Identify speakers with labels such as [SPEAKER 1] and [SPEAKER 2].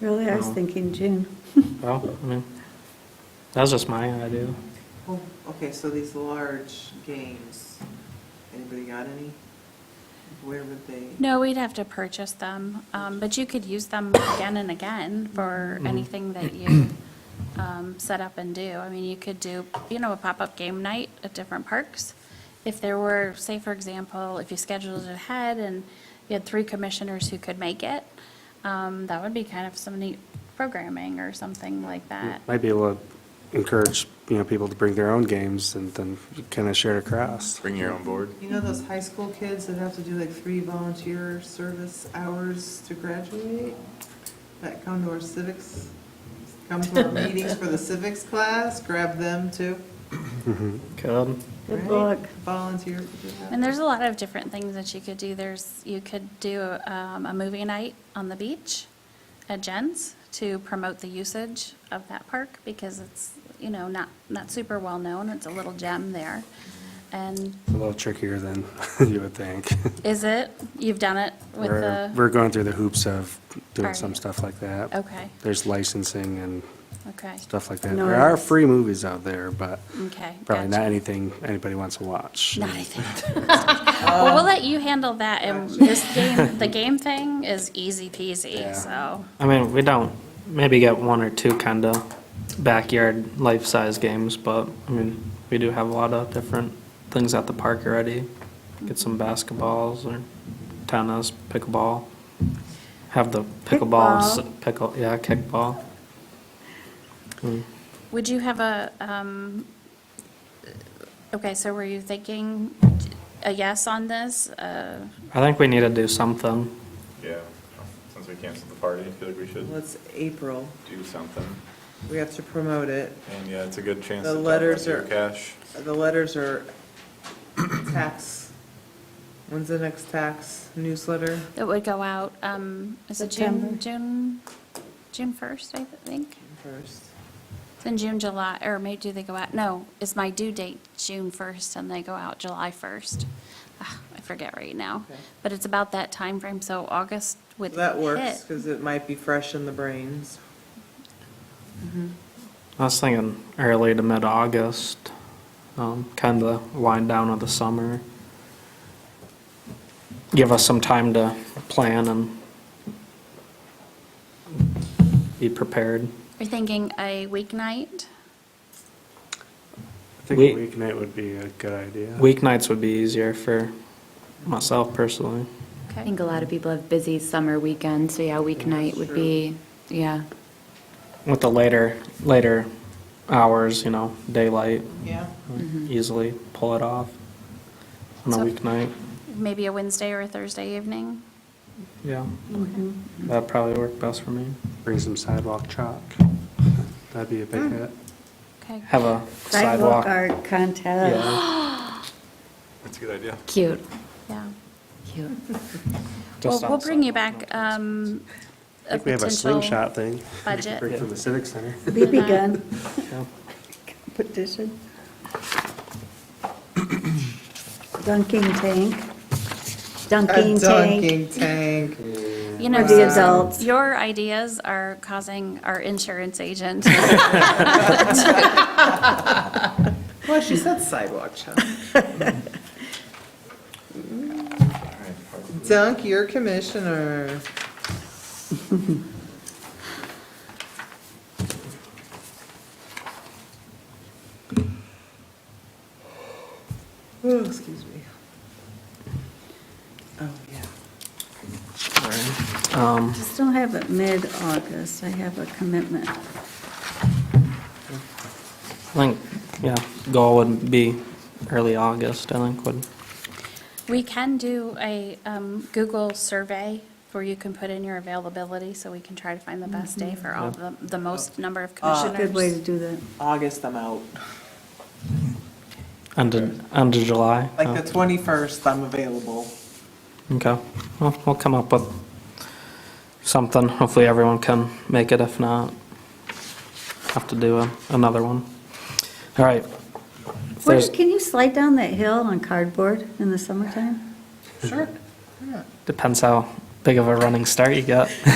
[SPEAKER 1] Really, I was
[SPEAKER 2] No.
[SPEAKER 1] thinking June.
[SPEAKER 2] Well, I mean, that was just my idea.
[SPEAKER 3] Well, Oh, Okay, so these large games, anybody got any? Where would they?
[SPEAKER 4] No, we'd have to purchase them, um, but you could use them again and again for anything that you um, set up and do. I mean, you could do, you know, a pop-up game night at different parks. If there were, say, for example, if you scheduled it ahead and you had three commissioners who could make it, um, that would be kind of some neat programming or something like that.
[SPEAKER 5] Might be able to encourage, you know, people to bring their own games and then kind of share it across.
[SPEAKER 6] Bring your own board.
[SPEAKER 3] You know those high school kids that have to do like three volunteer service hours to graduate? That come to our civics, come to our meetings for the civics class, grab them too.
[SPEAKER 2] Could,
[SPEAKER 1] Good
[SPEAKER 3] right?
[SPEAKER 1] luck.
[SPEAKER 3] Volunteer to do that.
[SPEAKER 4] And there's a lot of different things that you could do. There's, you could do um, a movie night on the beach at Jen's to promote the usage of that park because it's, you know, not, not super well-known. It's a little gem there. And
[SPEAKER 5] A little trickier than you would think.
[SPEAKER 4] is it, you've done it with
[SPEAKER 5] We're,
[SPEAKER 4] the,
[SPEAKER 5] we're going through the hoops of doing
[SPEAKER 4] Are
[SPEAKER 5] some
[SPEAKER 4] you?
[SPEAKER 5] stuff like that.
[SPEAKER 4] okay,
[SPEAKER 5] There's licensing and
[SPEAKER 4] okay,
[SPEAKER 5] stuff like that.
[SPEAKER 1] No,
[SPEAKER 5] There are
[SPEAKER 1] it's-
[SPEAKER 5] free movies out there, but
[SPEAKER 4] okay.
[SPEAKER 5] probably not
[SPEAKER 4] gotcha.
[SPEAKER 5] anything anybody wants to watch.
[SPEAKER 4] Not anything. Well, we'll let you handle that. And this game, the game thing is easy peasy,
[SPEAKER 5] Yeah.
[SPEAKER 4] so.
[SPEAKER 2] I mean, we don't, maybe get one or two kind of backyard life-size games, but, I mean, we do have a lot of different things at the park already. Get some basketballs or tennis, pickleball. Have the pickleball,
[SPEAKER 1] Kickball.
[SPEAKER 2] pickle, yeah, kickball. Hmm.
[SPEAKER 4] Would you have a, um, okay, so were you thinking a yes on this? Uh,
[SPEAKER 2] I think we need to do something.
[SPEAKER 6] Yeah, since we canceled the party, I feel like we should
[SPEAKER 3] Well, it's April.
[SPEAKER 6] do something.
[SPEAKER 3] We have to promote it.
[SPEAKER 6] And yeah, it's a good chance
[SPEAKER 3] The
[SPEAKER 6] to talk
[SPEAKER 3] letters
[SPEAKER 6] about your
[SPEAKER 3] are-
[SPEAKER 6] cash.
[SPEAKER 3] The letters are tax. When's the next tax newsletter?
[SPEAKER 4] That would go out, um, is it June,
[SPEAKER 1] September.
[SPEAKER 4] June, June 1st, I think?
[SPEAKER 3] First.
[SPEAKER 4] It's in June, July, or maybe do they go out, no, is my due date June 1st and they go out July 1st? Ah, I forget right now,
[SPEAKER 3] Okay.
[SPEAKER 4] but it's about that time frame. so August would
[SPEAKER 3] That works,
[SPEAKER 4] hit.
[SPEAKER 3] because it might be fresh in the brains.
[SPEAKER 2] I was thinking early to mid-August, um, kind of wind down of the summer. Give us some time to plan and be prepared.
[SPEAKER 4] You're thinking a weeknight?
[SPEAKER 5] I think a
[SPEAKER 2] We-
[SPEAKER 5] weeknight would be a good idea.
[SPEAKER 2] Weeknights would be easier for myself personally.
[SPEAKER 7] I
[SPEAKER 4] Okay.
[SPEAKER 7] think a lot of people have busy summer weekends, so yeah, weeknight would be, yeah.
[SPEAKER 2] With the later, later hours, you know, daylight,
[SPEAKER 3] Yeah.
[SPEAKER 2] easily pull it off on a
[SPEAKER 4] So-
[SPEAKER 2] weeknight.
[SPEAKER 4] Maybe a Wednesday or a Thursday evening?
[SPEAKER 2] Yeah.
[SPEAKER 1] Mm-hmm.
[SPEAKER 2] That'd probably work best for me.
[SPEAKER 5] Bring some sidewalk chalk. That'd be a
[SPEAKER 4] Hmm.
[SPEAKER 5] big hit.
[SPEAKER 4] Okay.
[SPEAKER 2] Have a
[SPEAKER 1] Sidewalk uh,
[SPEAKER 2] sidewalk.
[SPEAKER 1] art contest.
[SPEAKER 2] Yeah,
[SPEAKER 6] That's a good idea.
[SPEAKER 7] Cute,
[SPEAKER 4] Yeah.
[SPEAKER 7] cute.
[SPEAKER 4] Well,
[SPEAKER 2] just on
[SPEAKER 4] we'll bring you
[SPEAKER 2] sidewalk,
[SPEAKER 4] back
[SPEAKER 2] no sidewalks.
[SPEAKER 4] um,
[SPEAKER 5] I
[SPEAKER 4] a
[SPEAKER 5] think we have a
[SPEAKER 4] potential
[SPEAKER 5] slingshot thing.
[SPEAKER 4] budget.
[SPEAKER 5] Bring from the Civic Center.
[SPEAKER 1] BB gun
[SPEAKER 2] Yeah.
[SPEAKER 1] competition. Dunking tank.
[SPEAKER 3] A
[SPEAKER 1] Dunking tank.
[SPEAKER 3] dunking tank.
[SPEAKER 4] You
[SPEAKER 1] For
[SPEAKER 4] know,
[SPEAKER 1] the
[SPEAKER 4] Susan,
[SPEAKER 1] adults.
[SPEAKER 4] your ideas are causing our insurance agent.
[SPEAKER 3] Well, she said sidewalk chalk. Dunk your commissioner. Oh, excuse me. Oh, yeah.
[SPEAKER 2] Um,
[SPEAKER 1] Just don't have it mid-August. I have a commitment.
[SPEAKER 2] I think, yeah, goal would be early August, I think would,
[SPEAKER 4] We can do a um, Google survey where you can put in your availability, so we can try to find the best day for all the, the most number of
[SPEAKER 1] It's a good way to
[SPEAKER 4] commissioners.
[SPEAKER 1] do that.
[SPEAKER 3] August, I'm out.
[SPEAKER 2] end of, end of July.
[SPEAKER 3] Like the 21st, I'm available.
[SPEAKER 2] Uh, Okay, well, we'll come up with something, hopefully everyone can make it, if not, have to do a- another one. All right. If
[SPEAKER 1] Where-
[SPEAKER 2] there's-
[SPEAKER 1] Can you slide down that hill on cardboard in the summertime?
[SPEAKER 3] Sure.
[SPEAKER 2] Depends how big of a running start you get.